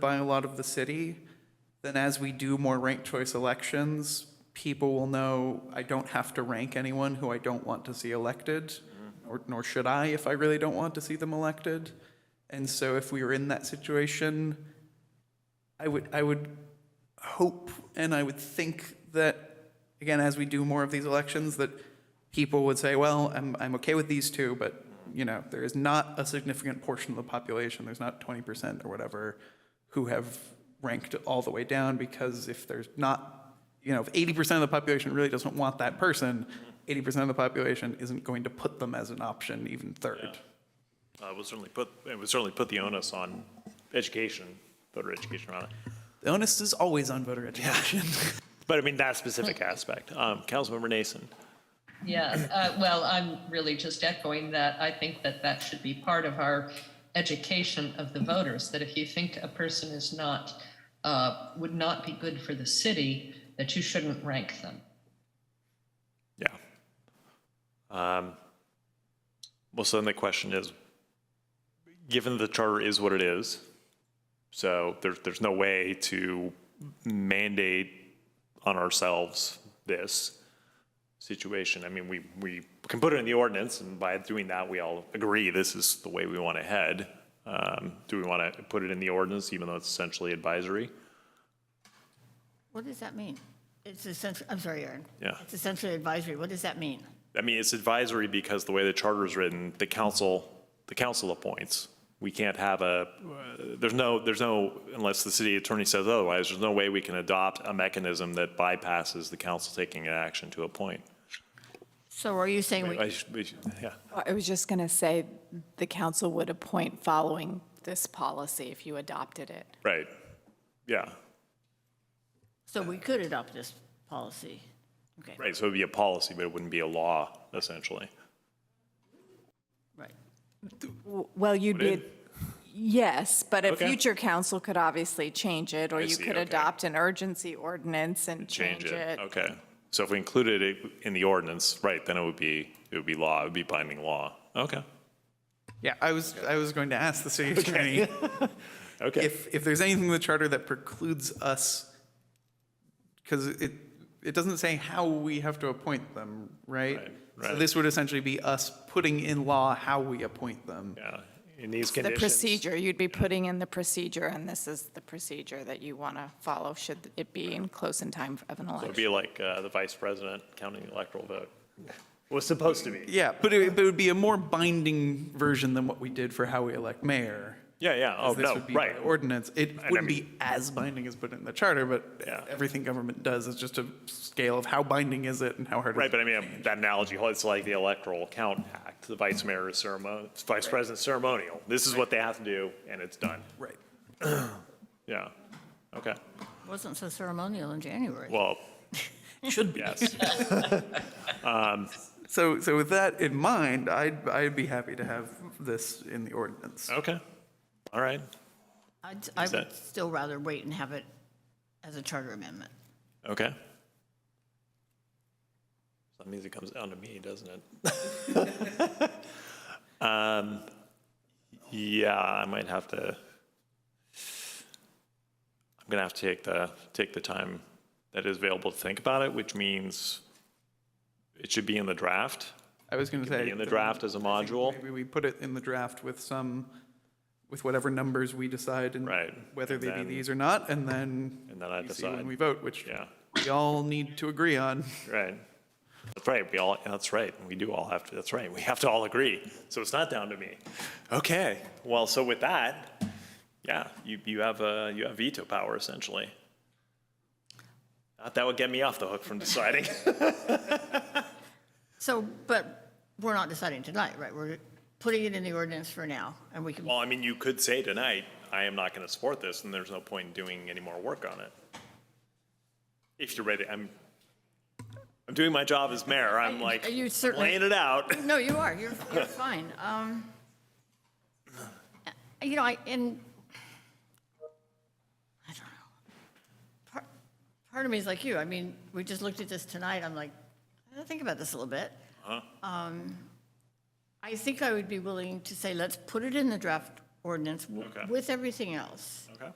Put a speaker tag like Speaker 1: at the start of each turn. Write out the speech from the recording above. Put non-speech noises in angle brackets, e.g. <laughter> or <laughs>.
Speaker 1: by a lot of the city, then as we do more ranked choice elections, people will know I don't have to rank anyone who I don't want to see elected, or, nor should I if I really don't want to see them elected. And so if we were in that situation, I would, I would hope and I would think that, again, as we do more of these elections, that people would say, well, I'm, I'm okay with these two, but, you know, there is not a significant portion of the population, there's not 20% or whatever, who have ranked all the way down because if there's not, you know, if 80% of the population really doesn't want that person, 80% of the population isn't going to put them as an option, even third.
Speaker 2: Uh, It would certainly put, it would certainly put the onus on education, voter education on it.
Speaker 1: The onus is always on voter education.
Speaker 2: But I mean, that specific aspect. Um, Councilmember Nason,
Speaker 3: Yeah, uh, well, I'm really just echoing that. I think that that should be part of our education of the voters, that if you think a person is not, uh, would not be good for the city, that you shouldn't rank them.
Speaker 2: yeah. Um, Well, so then the question is, given the charter is what it is, so there's, there's no way to mandate on ourselves this situation. I mean, we, we can put it in the ordinance, and by doing that, we all agree this is the way we want to head. Um, Do we want to put it in the ordinance, even though it's essentially advisory?
Speaker 4: What does that mean? It's essentially, I'm sorry, Aaron.
Speaker 2: Yeah.
Speaker 4: It's essentially advisory. What does that mean?
Speaker 2: I mean, it's advisory because the way the charter is written, the council, the council appoints. We can't have a, there's no, there's no, unless the city attorney says otherwise, there's no way we can adopt a mechanism that bypasses the council taking an action to appoint.
Speaker 4: So are you saying we,
Speaker 2: I should- we should- Yeah,
Speaker 5: I was just going to say, the council would appoint following this policy if you adopted it.
Speaker 2: right, yeah,
Speaker 4: so we could adopt this policy? Okay,
Speaker 2: right, so it'd be a policy, but it wouldn't be a law, essentially.
Speaker 4: right.
Speaker 5: Well, you'd
Speaker 2: Would
Speaker 5: be,
Speaker 2: it?
Speaker 5: yes, but a
Speaker 2: Okay.
Speaker 5: future council could obviously change it, or
Speaker 2: I
Speaker 5: you
Speaker 2: see,
Speaker 5: could
Speaker 2: okay.
Speaker 5: adopt an urgency ordinance and change it.
Speaker 2: Okay, so if we included it in the ordinance, right, then it would be, it would be law, it would be binding law. Okay,
Speaker 1: <laughs> Yeah, I was, I was going to ask the city attorney.
Speaker 2: okay.
Speaker 1: if if there's anything in the charter that precludes us, because it it doesn't say how we have to appoint them, right?
Speaker 2: Right,
Speaker 1: So
Speaker 2: right.
Speaker 1: this would essentially be us putting in law how we appoint them.
Speaker 2: Yeah, in these
Speaker 5: The
Speaker 2: conditions.
Speaker 5: procedure, you'd be putting in the procedure, and this is the procedure that you want to follow, should it be in close in time of an
Speaker 2: It'd
Speaker 5: election.
Speaker 2: be like uh, the vice president counting the electoral vote. Was supposed to be.
Speaker 1: Yeah, but it, but it would be a more binding version than what we did for how we elect mayor.
Speaker 2: Yeah, yeah, oh,
Speaker 1: 'cause this
Speaker 2: no,
Speaker 1: would be by
Speaker 2: right.
Speaker 1: Ordinance. It
Speaker 2: I
Speaker 1: wouldn't
Speaker 2: mean-
Speaker 1: be as binding as put in the charter, but
Speaker 2: Yeah.
Speaker 1: everything government does is just a scale of how binding is it and how hard.
Speaker 2: Right, but I mean, um, that analogy, it's like the electoral count act, the vice mayor is ceremonial, vice president ceremonial. This is what they have to do, and it's done.
Speaker 1: Right.
Speaker 2: Yeah, okay,
Speaker 4: Wasn't so ceremonial in January.
Speaker 1: <laughs>
Speaker 2: well,
Speaker 1: Should be.
Speaker 2: yes,
Speaker 1: So, so with that in mind, I'd, I'd be happy to have this in the ordinance.
Speaker 2: okay, all right.
Speaker 4: I'd- I would
Speaker 2: that-
Speaker 4: still rather wait and have it as a charter amendment.
Speaker 2: Okay. That means it comes down to me, doesn't it?
Speaker 1: <laughs>
Speaker 2: um, yeah, I might have to. I'm gonna have to take the take the time that is available to think about it, which means it should be in the draft.
Speaker 1: I was going to say.
Speaker 2: Be in the draft as a module.
Speaker 1: Maybe we put it in the draft with some, with whatever numbers we decide and.
Speaker 2: Right,
Speaker 1: Whether
Speaker 2: and
Speaker 1: they be
Speaker 2: then-
Speaker 1: these or not, and then.
Speaker 2: And then I
Speaker 1: we see When
Speaker 2: decide.
Speaker 1: we vote, which
Speaker 2: Yeah.
Speaker 1: we all need to agree on.
Speaker 2: Right. That's right. We all, that's right. We do all have to, that's right. We have to all agree. So it's not down to me. Okay. Well, so with that, yeah, you, you have uh you have veto power essentially. Not that would get me off the hook from <laughs> deciding.
Speaker 4: So, but we're not deciding tonight, right? We're putting it in the ordinance for now, and we can,
Speaker 2: Well, I mean, you could say tonight, I am not going to support this and there's no point in doing any more work on it. If you're ready, I'm, I'm doing my job as mayor. I'm like
Speaker 4: You certainly-
Speaker 2: laying it out.
Speaker 4: <laughs> no, you are, you're, you're fine. Um, You know, I, and, I don't know. Part- Part of me is like you, I mean, we just looked at this tonight, I'm like, I gotta think about this a little bit. Um, I think I would be willing to say, let's put it in the draft ordinance w-
Speaker 2: Okay.
Speaker 4: with everything else.
Speaker 2: Okay.